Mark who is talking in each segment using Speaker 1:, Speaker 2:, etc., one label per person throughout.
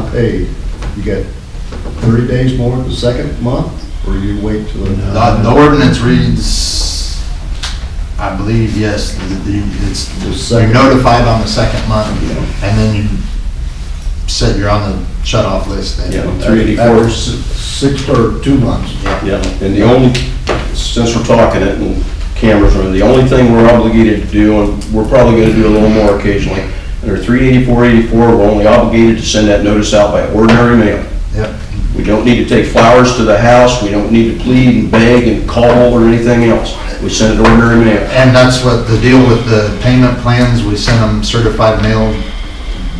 Speaker 1: not paid, you get 30 days more the second month, or you wait till the...
Speaker 2: The the ordinance reads, I believe, yes, the- the- it's,
Speaker 1: The
Speaker 2: you're
Speaker 1: second-
Speaker 2: notified on the second month, and then you said you're on the shut-off list then.
Speaker 3: Yeah, 384.
Speaker 1: After Six or two months.
Speaker 2: Yeah.
Speaker 3: Yeah, and the only, since we're talking it and cameras are, the only thing we're obligated to do, and we're probably gonna do a little more occasionally, under 384, 84, we're only obligated to send that notice out by ordinary mail.
Speaker 2: Yep.
Speaker 3: We don't need to take flowers to the house, we don't need to plead and beg and call or anything else. We send it ordinary mail.
Speaker 2: And that's what the deal with the payment plans, we sent them certified mail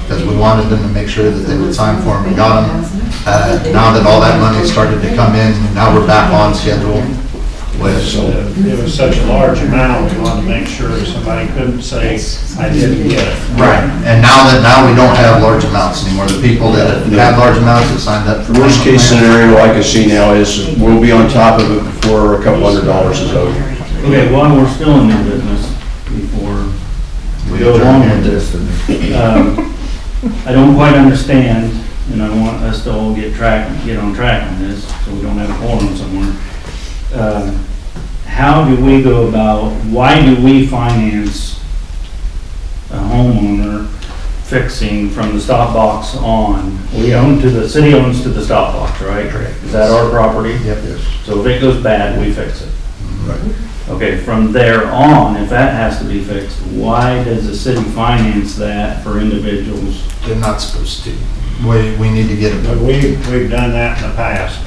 Speaker 2: because we wanted them to make sure that they would sign for them, we got them. Uh, Now that all that money started to come in, now we're back on schedule with,
Speaker 3: So,
Speaker 4: It was such a large amount, we wanted to make sure somebody couldn't say, I didn't get it.
Speaker 2: right, and now that, now we don't have large amounts anymore, the people that had large amounts that signed up for.
Speaker 3: Worst
Speaker 2: payment
Speaker 3: case
Speaker 2: plans-
Speaker 3: scenario I can see now is we'll be on top of it before a couple hundred dollars is owed.
Speaker 5: Okay, while we're still in new business, before we go along with this, um, I don't quite understand, and I want us to all get track, get on track on this, so we don't have a forum somewhere. Um, How do we go about, why do we finance a homeowner fixing from the stop box on? We own to, the city owns to the stop box, right? Correct. Is that our property?
Speaker 2: Yep,
Speaker 5: So if it goes bad, we fix it. Okay, from there on, if that has to be fixed, why does the city finance that for individuals?
Speaker 2: they're not supposed to. We, we need to get
Speaker 4: But
Speaker 2: them.
Speaker 4: we, we've done that in the past.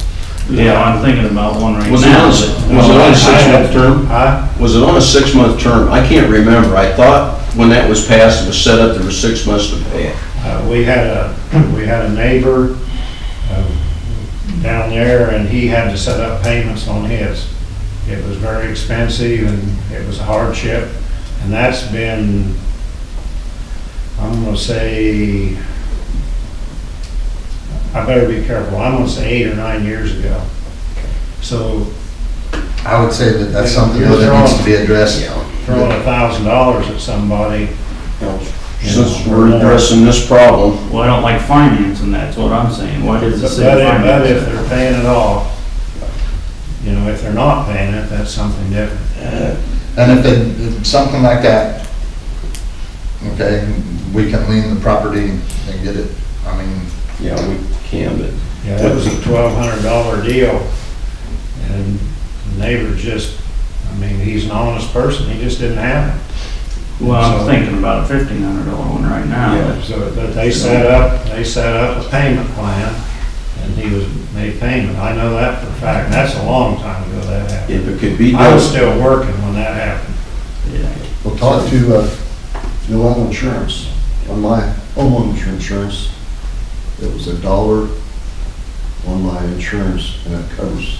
Speaker 5: Yeah, I'm thinking about one right now.
Speaker 3: Was it on, a si- was it on a six-month term?
Speaker 4: Huh?
Speaker 3: Was it on a six-month term? I can't remember. I thought when that was passed, it was set up, there was six months to pay it.
Speaker 4: Uh, We had a, we had a neighbor uh, down there, and he had to set up payments on his. It was very expensive, and it was a hardship, and that's been, I'm gonna say, I better be careful, I'm gonna say eight or nine years ago. So
Speaker 2: I would say that that's
Speaker 4: Yeah,
Speaker 2: something
Speaker 4: you're
Speaker 2: that needs to
Speaker 4: wrong.
Speaker 2: be addressed.
Speaker 4: throwing a thousand dollars at somebody,
Speaker 3: Now, Since we're addressing this problem,
Speaker 5: Well, I don't like financing, that's what I'm saying. Why does
Speaker 4: but
Speaker 5: the
Speaker 4: if,
Speaker 5: city
Speaker 4: but if
Speaker 5: finance
Speaker 4: they're
Speaker 5: that?
Speaker 4: paying it off, you know, if they're not paying it, that's something different.
Speaker 2: And if it, if something like that, okay, we can lean the property and get it. I mean,
Speaker 3: yeah, we can, but
Speaker 4: Yeah, that was a twelve hundred dollar deal, and the neighbor just, I mean, he's an honest person, he just didn't have it.
Speaker 5: Well, I'm thinking about a fifteen hundred dollar one right now.
Speaker 4: So, but they set up, they set up a payment plan, and he was, made payment, I know that for a fact, and that's a long time ago that happened.
Speaker 3: if it could be
Speaker 4: I
Speaker 3: done,
Speaker 4: was still working when that happened.
Speaker 5: Yeah.
Speaker 1: Well, talk to uh, New Island Insurance, on my homeowner's insurance, it was a dollar on my insurance, and it covers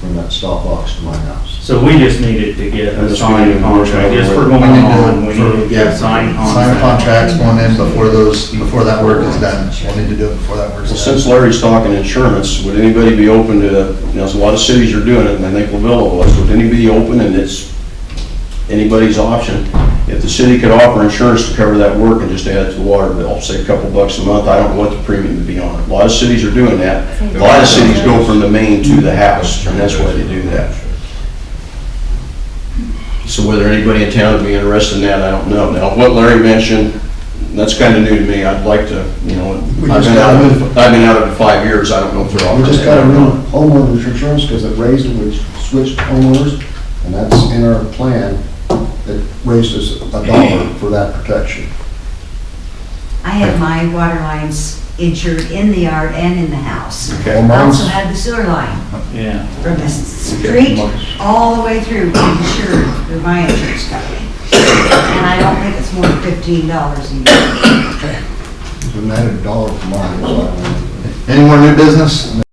Speaker 1: from that stop box to my house.
Speaker 5: So we just needed to get a
Speaker 3: That's
Speaker 5: signed
Speaker 3: good.
Speaker 5: contract, just for going
Speaker 2: We need to-
Speaker 5: on, we need to
Speaker 2: yeah,
Speaker 5: get signed
Speaker 2: sign
Speaker 5: contract.
Speaker 2: contracts going in before those, before that work is done. We'll need to do it before that work
Speaker 3: well,
Speaker 2: is
Speaker 3: since
Speaker 2: done.
Speaker 3: Larry's talking insurance, would anybody be open to, you know, a lot of cities are doing it, and I think Lavilla was, would anybody be open, and it's anybody's option, if the city could offer insurance to cover that work and just add to the water bill, say a couple bucks a month, I don't know what the premium would be on it. A lot of cities are doing that. A lot of cities go from the main to the house, and that's why they do that. So whether anybody in town would be interested in that, I don't know. Now, what Larry mentioned, that's kind of new to me. I'd like to, you know,
Speaker 1: We
Speaker 3: I've
Speaker 1: just
Speaker 3: been
Speaker 1: got
Speaker 3: out,
Speaker 1: rid of-
Speaker 3: of- I've been out of it five years. I don't know if they're offering.
Speaker 1: We just
Speaker 3: that.
Speaker 1: got a new homeowner's insurance because it raised, and we switched homeowners, and that's in our plan, it raised us a dollar for that protection.
Speaker 6: I had my water lines insured in the yard and in the house.
Speaker 1: Well,
Speaker 6: I also
Speaker 1: mine's-
Speaker 6: had the sewer line
Speaker 5: Yeah.
Speaker 6: from the street all the way through insured through my insurance company. And I don't think it's more than fifteen dollars a year.
Speaker 1: and that a dollar for mine, so I don't know.
Speaker 2: Any uh, more new business?